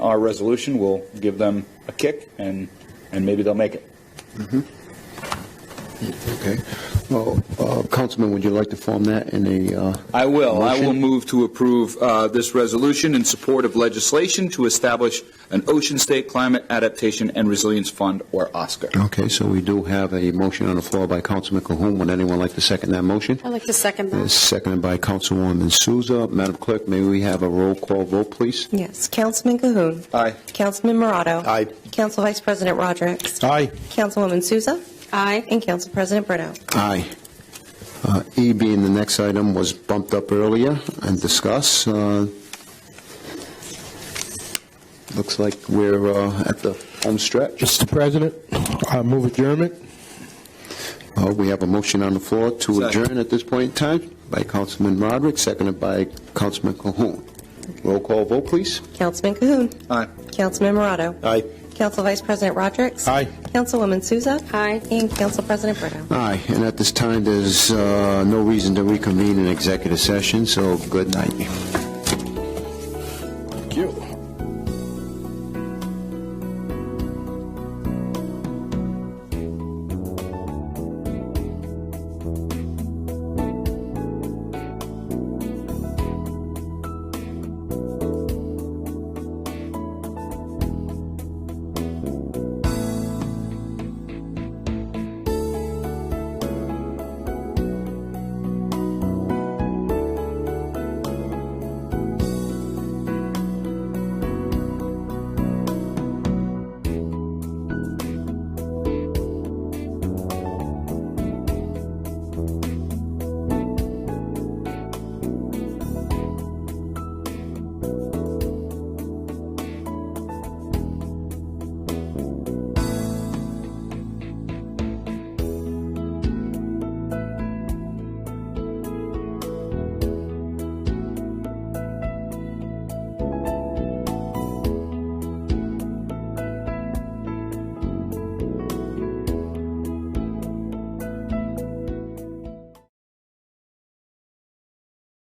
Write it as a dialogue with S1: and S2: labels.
S1: our resolution will give them a kick and, and maybe they'll make it.
S2: Okay. Well, uh, Councilman, would you like to form that in a, uh,
S3: I will. I will
S2: Motion?
S3: move to approve uh, this resolution in support of legislation to establish an Ocean State Climate Adaptation and Resilience Fund, or OSCAR.
S2: okay, so we do have a motion on the floor by Councilman Cahoon. Would anyone like to second that motion?
S4: I'd like to second
S2: Uh,
S4: that.
S2: Seconded by Councilwoman Souza. Madam Clerk, may we have a roll call vote, please?
S5: Yes, Councilman Cahoon.
S3: Aye.
S5: Councilman Morado.
S2: Aye.
S5: Council Vice President Rodrick.
S2: Aye.
S5: Councilwoman Souza.
S4: Aye.
S5: And Council President Brito.
S2: Aye. Uh, E being the next item was bumped up earlier and discussed. Uh, Looks like we're uh, at the home stretch.
S6: Mr. President, I move adjournment.
S2: Uh, We have a motion on the floor to
S3: Second.
S2: adjourn at this point in time by Councilman Roderick, seconded by Councilman Cahoon. Roll call vote, please.
S5: Councilman Cahoon.
S3: Aye.
S5: Councilman Morado.
S2: Aye.
S5: Council Vice President Rodrick.
S6: Aye.
S5: Councilwoman Souza.
S4: Aye.
S5: And Council President Brito.
S2: Aye, and at this time, there's uh, no reason to reconvene in executive session, so good night.